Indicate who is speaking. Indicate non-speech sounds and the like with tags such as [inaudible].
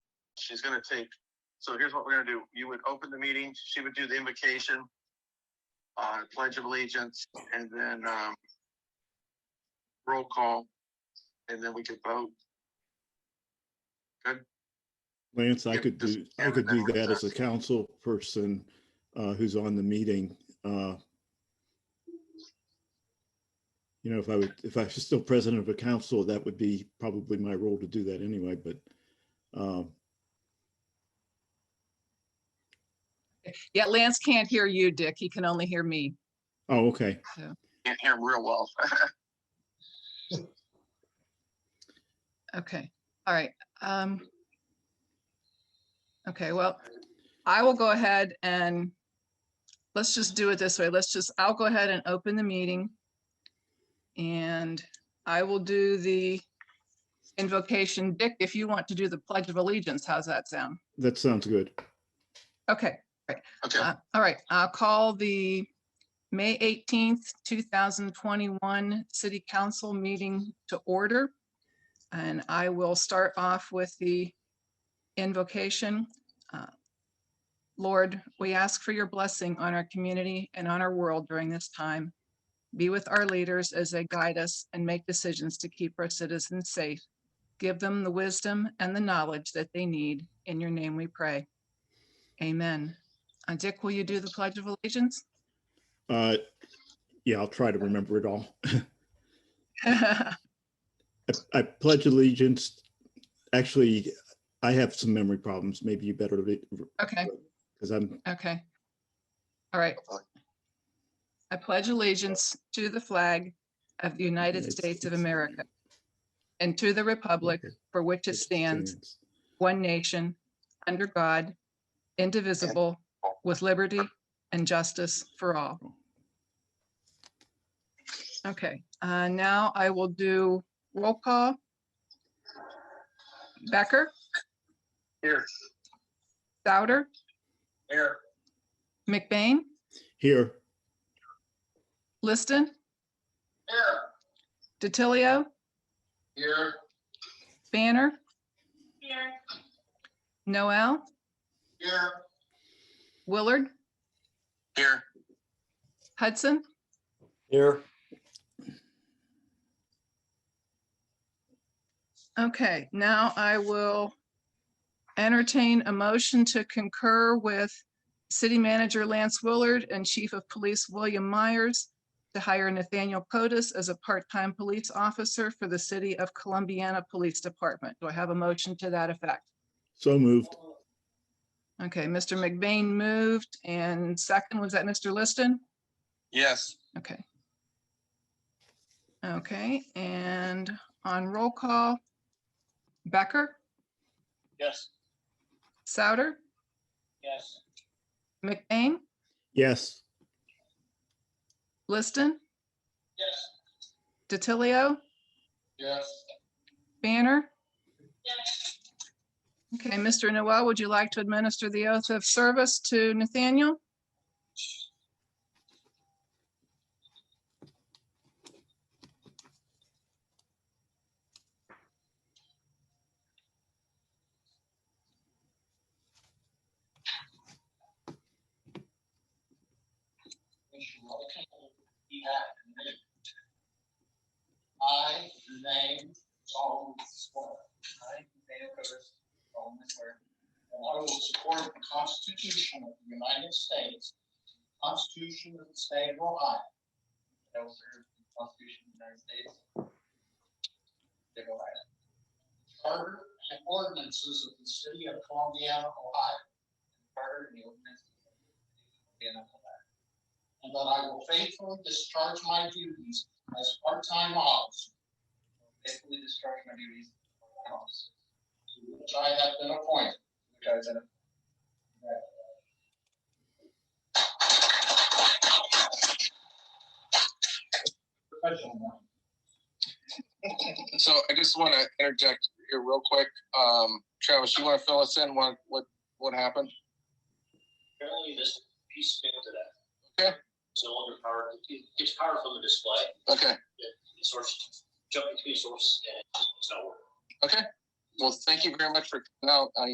Speaker 1: she's gonna take, so here's what we're gonna do. You would open the meeting, she would do the invocation, uh, pledge of allegiance, and then, um, roll call, and then we could vote.
Speaker 2: Lance, I
Speaker 1: Yeah,
Speaker 2: could
Speaker 1: just
Speaker 2: do,
Speaker 1: have
Speaker 2: I
Speaker 1: it
Speaker 2: could
Speaker 1: that
Speaker 2: do
Speaker 1: works
Speaker 2: that as a
Speaker 1: out.
Speaker 2: council person uh, who's on the meeting. uh, You know, if I would, if I was still president of a council, that would be probably my role to do that anyway, but um,
Speaker 3: Yeah, Lance can't hear you, Dick. He can only hear me.
Speaker 2: oh, okay.
Speaker 1: Can't hear him real well. [laughs]
Speaker 3: Okay, all right. Um Okay, well, I will go ahead and let's just do it this way. Let's just, I'll go ahead and open the meeting. And I will do the invocation. Dick, if you want to do the Pledge of Allegiance, how's that sound?
Speaker 2: That sounds good.
Speaker 3: Okay.
Speaker 1: Okay,
Speaker 3: Uh, All right, I'll call the May 18th, 2021 City Council meeting to order. And I will start off with the invocation. Uh, Lord, we ask for your blessing on our community and on our world during this time. Be with our leaders as they guide us and make decisions to keep our citizens safe. Give them the wisdom and the knowledge that they need. In your name we pray. Amen. Uh, Dick, will you do the Pledge of [laughs] Allegiance?
Speaker 2: Uh, Yeah, I'll try to remember it all. [laughs] I- I pledge allegiance. Actually, I have some memory problems. Maybe you better, because
Speaker 3: Okay,
Speaker 2: I'm,
Speaker 3: okay. All right. I pledge allegiance to the flag of the United States of America and to the republic for which it stands, one nation, under God, indivisible, with liberty and justice for all. Okay, uh, now I will do roll call. Becker,
Speaker 1: here,
Speaker 3: Souter,
Speaker 1: here,
Speaker 3: McBain,
Speaker 2: Here,
Speaker 3: Liston,
Speaker 1: here,
Speaker 3: DiTilio,
Speaker 1: here,
Speaker 3: Banner. Noel,
Speaker 1: here,
Speaker 3: Willard,
Speaker 1: here,
Speaker 3: Hudson,
Speaker 4: Here,
Speaker 3: Okay, now I will entertain a motion to concur with City Manager Lance Willard and Chief of Police William Myers to hire Nathaniel Potus as a part-time police officer for the City of Columbiana Police Department. Do I have a motion to that effect?
Speaker 2: so moved.
Speaker 3: Okay, Mr. McBain moved and second, was that Mr. Liston?
Speaker 1: yes,
Speaker 3: Okay. Okay, and on roll call, Becker,
Speaker 1: yes,
Speaker 3: Souter,
Speaker 1: yes,
Speaker 3: McBain,
Speaker 2: Yes,
Speaker 3: Liston,
Speaker 1: yes,
Speaker 3: DiTilio,
Speaker 1: yes,
Speaker 3: Banner.
Speaker 1: yes.
Speaker 3: Okay, Mr. Noel, would you like to administer the oath of service to Nathaniel?
Speaker 1: I, the name, solemnly swear. I, Daniel Curtis, solemnly swear. That I will support the Constitution of the United States, the Constitution of the State of Ohio. That I will serve the Constitution of the United States. State of Ohio. Charter and ordinances of the City of Columbia, Ohio. Charter and the ordinances of the City of Columbia, Ohio and that I will faithfully discharge my duties as part-time officer. Faithfully discharge my duties as part-time officer. To which I have been appointed. Which I have been.
Speaker 5: So I just want to interject here real quick. Um, Travis, you want to fill us in what, what, what happened?
Speaker 6: Apparently this piece failed today.
Speaker 5: Okay.
Speaker 6: It's no longer powered, it gets power from the display,
Speaker 5: Okay.
Speaker 6: the source, jumping between sources and it's not working.
Speaker 5: Well, thank you very much for coming out. I